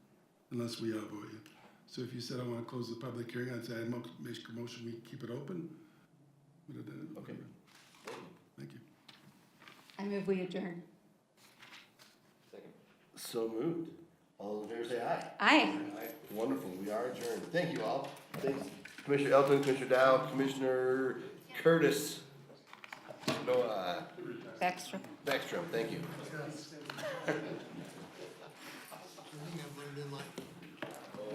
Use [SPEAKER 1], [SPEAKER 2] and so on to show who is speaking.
[SPEAKER 1] unless we outvote you. So if you said, I want to close the public hearing, I'd say, I mo- make a motion, we keep it open. Would have done it.
[SPEAKER 2] Okay.
[SPEAKER 1] Thank you.
[SPEAKER 3] I move we adjourn.
[SPEAKER 4] Second.
[SPEAKER 2] So moved. All in favor say aye.
[SPEAKER 3] Aye.
[SPEAKER 2] Wonderful, we are adjourned. Thank you all. Thanks Commissioner Elton, Commissioner Dow, Commissioner Curtis. Noah
[SPEAKER 3] Baxter.
[SPEAKER 2] Backstrom, thank you.
[SPEAKER 5] I think I've learned in life.